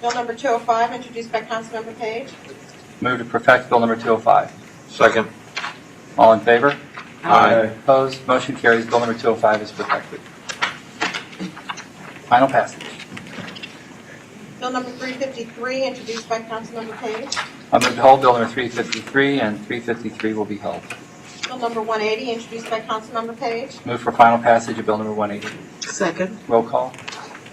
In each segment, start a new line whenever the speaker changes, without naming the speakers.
Bill number 205, introduced by Councilmember Page.
Move to perfect Bill number 205.
Second.
All in favor?
Aye.
Opposed? Motion carries. Bill number 205 is perfected. Final passage.
Bill number 353, introduced by Councilmember Page.
I move to hold Bill number 353, and 353 will be held.
Bill number 180, introduced by Councilmember Page.
Move for final passage of Bill number 180.
Second.
Roll call.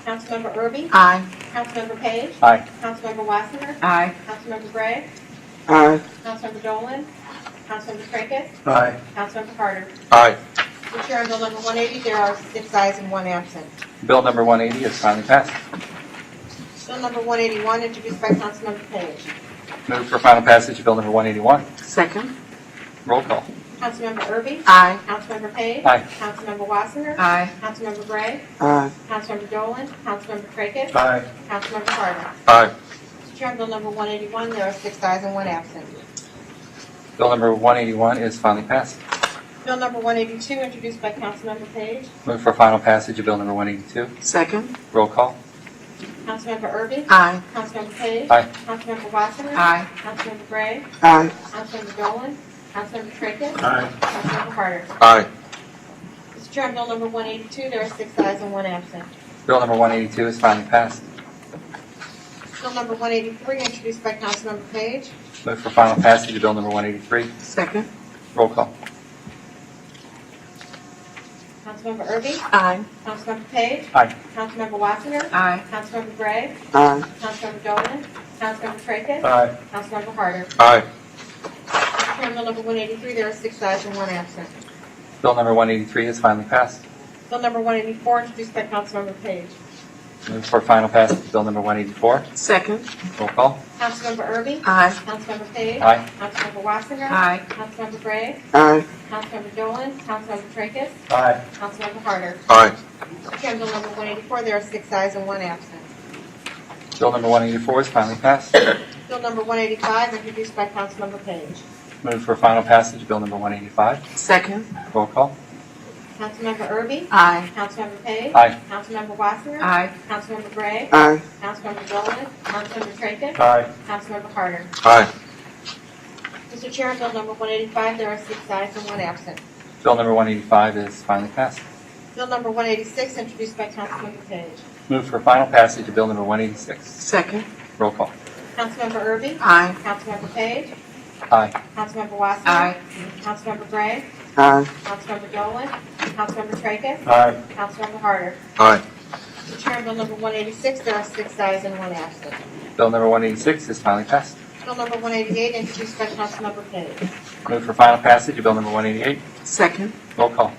Councilmember Erby?
Aye.
Councilmember Page?
Aye.
Councilmember Wassinger?
Aye.
Councilmember Gray?
Aye.
Councilmember Dolan? Councilmember Tracus?
Aye.
Councilmember Harder?
Aye.
The chair on bill number 180, there are six ayes and one absent.
Bill number 180 is finally passed.
Bill number 181, introduced by Councilmember Page.
Move for final passage of Bill number 181.
Second.
Roll call.
Councilmember Erby?
Aye.
Councilmember Page?
Aye.
Councilmember Wassinger?
Aye.
Councilmember Gray?
Aye.
Councilmember Dolan? Councilmember Tracus?
Aye.
Councilmember Harder?
Aye.
Mr. Chair, on bill number 181, there are six ayes and one absent.
Bill number 181 is finally passed.
Bill number 182, introduced by Councilmember Page.
Move for final passage of Bill number 182.
Second.
Roll call.
Councilmember Erby?
Aye.
Councilmember Page?
Aye.
Councilmember Wassinger?
Aye.
Councilmember Gray?
Aye.
Councilmember Dolan? Councilmember Tracus?
Aye.
Councilmember Harder?
Aye.
Mr. Chair, on bill number 182, there are six ayes and one absent.
Bill number 182 is finally passed.
Bill number 183, introduced by Councilmember Page.
Move for final passage of Bill number 183.
Second.
Roll call.
Councilmember Erby?
Aye.
Councilmember Page?
Aye.
Councilmember Wassinger?
Aye.
Councilmember Gray?
Aye.
Councilmember Dolan? Councilmember Tracus?
Aye.
Councilmember Harder?
Aye.
Mr. Chair, on bill number 183, there are six ayes and one absent.
Bill number 183 is finally passed.
Bill number 184, introduced by Councilmember Page.
Move for final passage of Bill number 184.
Second.
Roll call.
Councilmember Erby?
Aye.
Councilmember Page?
Aye.
Councilmember Wassinger?
Aye.
Councilmember Gray?
Aye.
Councilmember Dolan? Councilmember Tracus?
Aye.
Councilmember Harder?
Aye.
Mr. Chair, on bill number 184, there are six ayes and one absent.
Bill number 184 is finally passed.
Bill number 185, introduced by Councilmember Page.
Move for final passage of Bill number 185.
Second.
Roll call.
Councilmember Erby?
Aye.
Councilmember Page?
Aye.
Councilmember Wassinger?
Aye.
Councilmember Gray?
Aye.
Councilmember Dolan? Councilmember Tracus?
Aye.
Councilmember Harder?
Aye.
Mr. Chair, on bill number 185, there are six ayes and one absent.
Bill number 185 is finally passed.
Bill number 186, introduced by Councilmember Page.
Move for final passage of Bill number 186.
Second.
Roll call.
Councilmember Erby?
Aye.
Councilmember Page?
Aye.
Councilmember Wassinger?
Aye.
Councilmember Gray?
Aye.
Councilmember Dolan? Councilmember Tracus?
Aye.
Councilmember Harder?
Aye.
Mr. Chair, on bill number 186, there are six ayes and one absent.
Bill number 186 is finally passed.
Bill number 188, introduced by Councilmember Page.
Move for final passage of Bill number 188.
Second.
Roll call.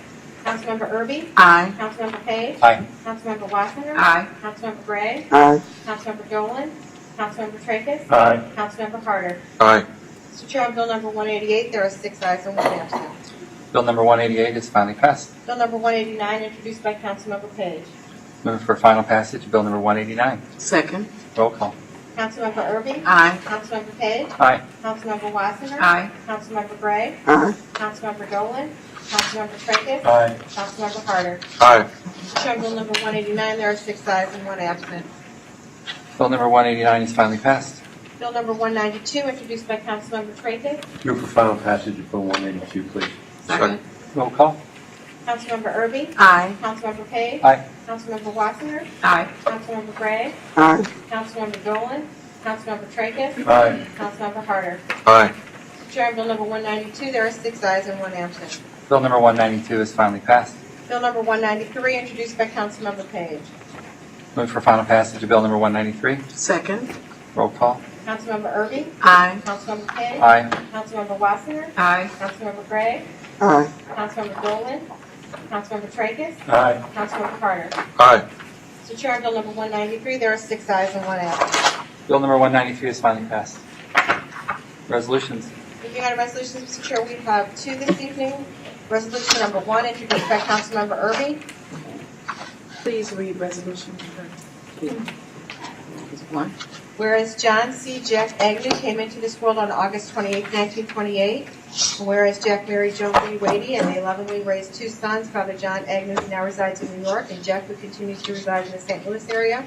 Councilmember Erby?
Aye.
Councilmember Page?
Aye.
Councilmember Wassinger?
Aye.
Councilmember Gray?
Aye.
Councilmember Dolan? Councilmember Tracus?
Aye.
Councilmember Harder?
Aye.
Mr. Chair, on bill number 188, there are six ayes and one absent.
Bill number 188 is finally passed.
Bill number 189, introduced by Councilmember Page.
Move for final passage of Bill number 189.
Second.
Roll call.
Councilmember Erby?
Aye.
Councilmember Page?
Aye.
Councilmember Wassinger?
Aye.
Councilmember Gray?
Aye.
Councilmember Dolan? Councilmember Tracus?
Aye.
Councilmember Harder?
Aye.
Mr. Chair, on bill number 189, there are six ayes and one absent.
Bill number 189 is finally passed.
Bill number 192, introduced by Councilmember Tracus.
Move for final passage of Bill 182, please.
Second.
Roll call.
Councilmember Erby?
Aye.
Councilmember Page?
Aye.
Councilmember Wassinger?
Aye.
Councilmember Gray?
Aye.
Councilmember Dolan? Councilmember Tracus?
Aye.
Councilmember Harder?
Aye.
Mr. Chair, on bill number 192, there are six ayes and one absent.
Bill number 192 is finally passed.
Bill number 193, introduced by Councilmember Page.
Move for final passage of Bill number 193.
Second.
Roll call.
Councilmember Erby?
Aye.
Councilmember Page?
Aye.
Councilmember Wassinger?
Aye.
Councilmember Gray?
Aye.
Councilmember Dolan? Councilmember Tracus?
Aye.
Councilmember Harder?
Aye.
Mr. Chair, on bill number 193, there are six ayes and one absent.
Bill number 193 is finally passed. Resolutions.
Moving on to resolutions, Mr. Chair, we have two this evening. Resolution number one, introduced by Councilmember Erby.
Please read resolution number two. One.
Whereas John C. Jack Agnew came into this world on August 28, 1928, and whereas Jack married Joan Lee Wadey and they lovingly raised two sons, Father John Agnew, who now resides in New York, and Jack, who continues to reside in the St. Louis area,